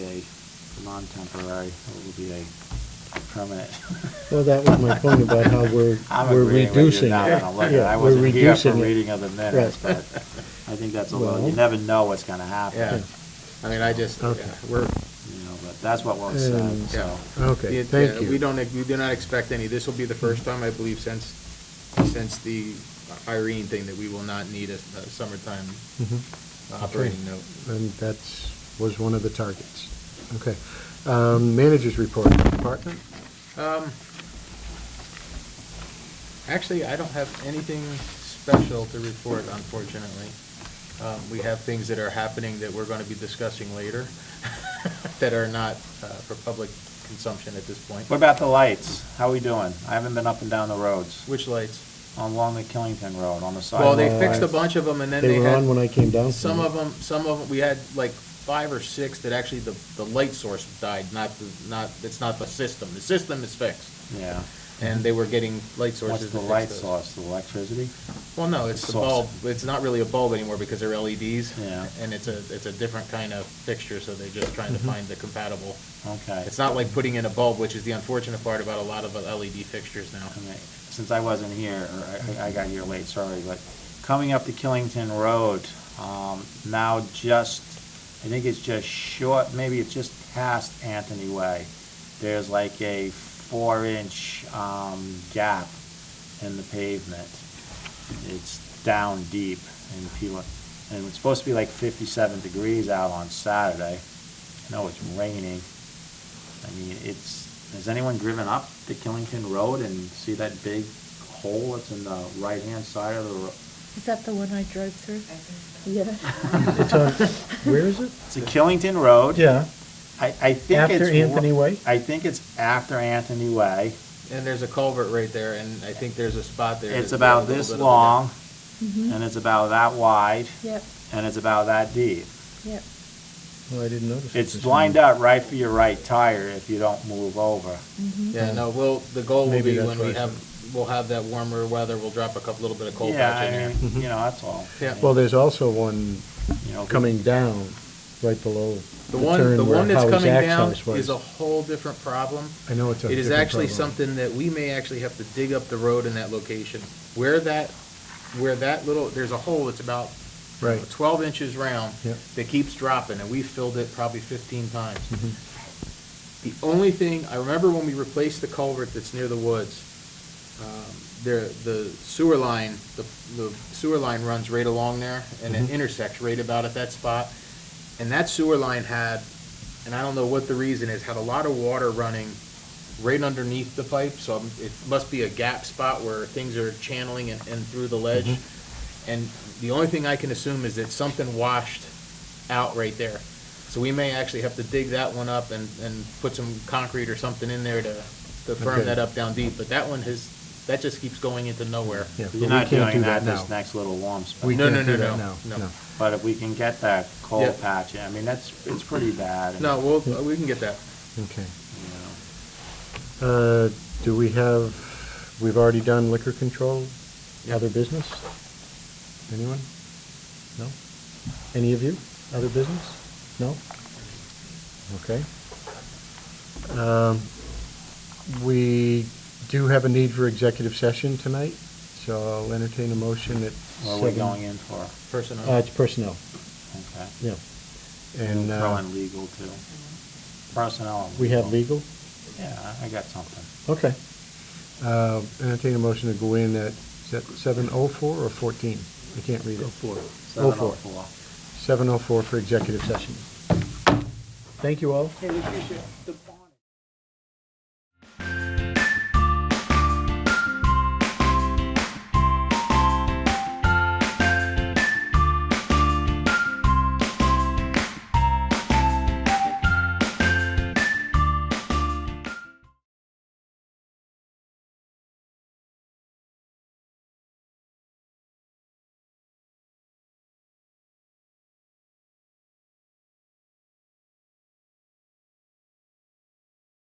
non-temporary, it will be a permanent. Well, that was my point about how we're, I'm we're agreeing with you reducing it. now that I'm looking. Yeah, I we're wasn't here for reducing it. reading of the minutes, but I think that's a little, you Well- never know what's gonna happen. Yeah, I mean, I just, yeah, Okay. we're, You know, but that's what was said, Um, so. Okay, it- thank yeah, you. we don't, ex- we do not expect any, this will be the first time, I believe, since, since the Irene thing that we will not need a a summertime Mhm. operating note. And that's, was one of the targets. Okay. Um, Managers report, department? Um, Actually, I don't have anything special to report, unfortunately. Um, We have things that are happening that we're going to be discussing later that are not uh, for public consumption at this point. What about the lights? How we doing? I haven't been up and down the roads, Which lights? along the Killington Road, on the Well, sidewalk. they fixed a bunch of them and then They they were on had, when I came down. some from- of them, some of them, we had like five or six that actually the, the light source died, not, the not, it's not the system. The system is fixed. Yeah. And they were getting light What's sources. the to fix light those. source, the electricity? Well, no, it's the Source. bulb, it's not really a bulb anymore because they're LEDs. Yeah. And it's a, it's a different kind of fixture, so they're just trying to Mm-hmm. find the compatible. Okay. It's not like putting in a bulb, which is the unfortunate part about a lot of LED fixtures now. Okay. Since I wasn't here, or I, I got here late, sorry, but coming up to Killington Road, um, now just, I think it's just short, maybe it's just past Anthony Way. There's like a four-inch, um, gap in the pavement. It's down deep and people, and it's supposed to be like fifty-seven degrees out on Saturday. I know it's raining. I mean, it's, has anyone driven up the Killington Road and see that big hole that's in the right-hand side of the road? Is that the one I drove through? Yeah. It's on, where is it? It's a Killington Road. Yeah, I, I think it's. after ro- Anthony Way? I think it's after Anthony Way. And there's a culvert right there, and I think there's a spot there. It's that's about a little this bit of a- long, Mm-hmm. and it's about that wide, Yep, and it's about that deep. yep. Well, Oh, I didn't notice. it It's this lined morning. up right for your right tire if you don't move over. Yeah, no, we'll, the goal will Maybe be that's when why we it's have, we'll have that warmer weather, we'll drop a couple, little bit of cold Yeah, patch in I here. mean, you know, that's all. Yeah. Well, there's also one You know, coming down, right below The the one, turn the one where that's Howie's coming down access is was. a whole different problem. I know it's a It is different actually problem. something that we may actually have to dig up the road in that location. Where that, where that little, there's a hole that's about Right. twelve inches round Yep. that keeps dropping, and we filled it probably fifteen times. Mm-hmm. The only thing, I remember when we replaced the culvert that's near the woods, um, there, the sewer line, the, the sewer line runs right along there, and Mm-hmm. it intersects right about at that spot. And that sewer line had, and I don't know what the reason is, had a lot of water running right underneath the pipe, so I'm- it must be a gap spot where things are channeling and, and through the ledge. Mm-hmm. And the only thing I can assume is that something washed out right there. So we may actually have to dig that one up and, and put some concrete or something in there to, to firm Okay. that up down deep, but that one has, that just keeps going into nowhere. Yeah, but You're we not can't doing do that now. this next little warm spot. We No, can't no, do no, that no, now, no. But if we can get that coal Yeah. patch, I mean, that's, it's pretty bad. and, No, we'll, we can get that. Okay. you know. Uh, Do we have, we've already done liquor control, Yeah. other business? Anyone? No? Any of you? Other business? No? Okay. Um, We do have a need for executive session tonight, so I'll entertain a motion at What seven. are we going in for? Personnel. Uh, It's personnel, Okay. yeah. And Throw uh, in legal too. Personnel. and we have legal? Yeah, I I got something. Okay. Uh, Entertain a motion to go in at, is that 7:04 or 14? I can't read it. 04. Seven oh four. 7:04 for executive session. Thank you all. Hey, we appreciate the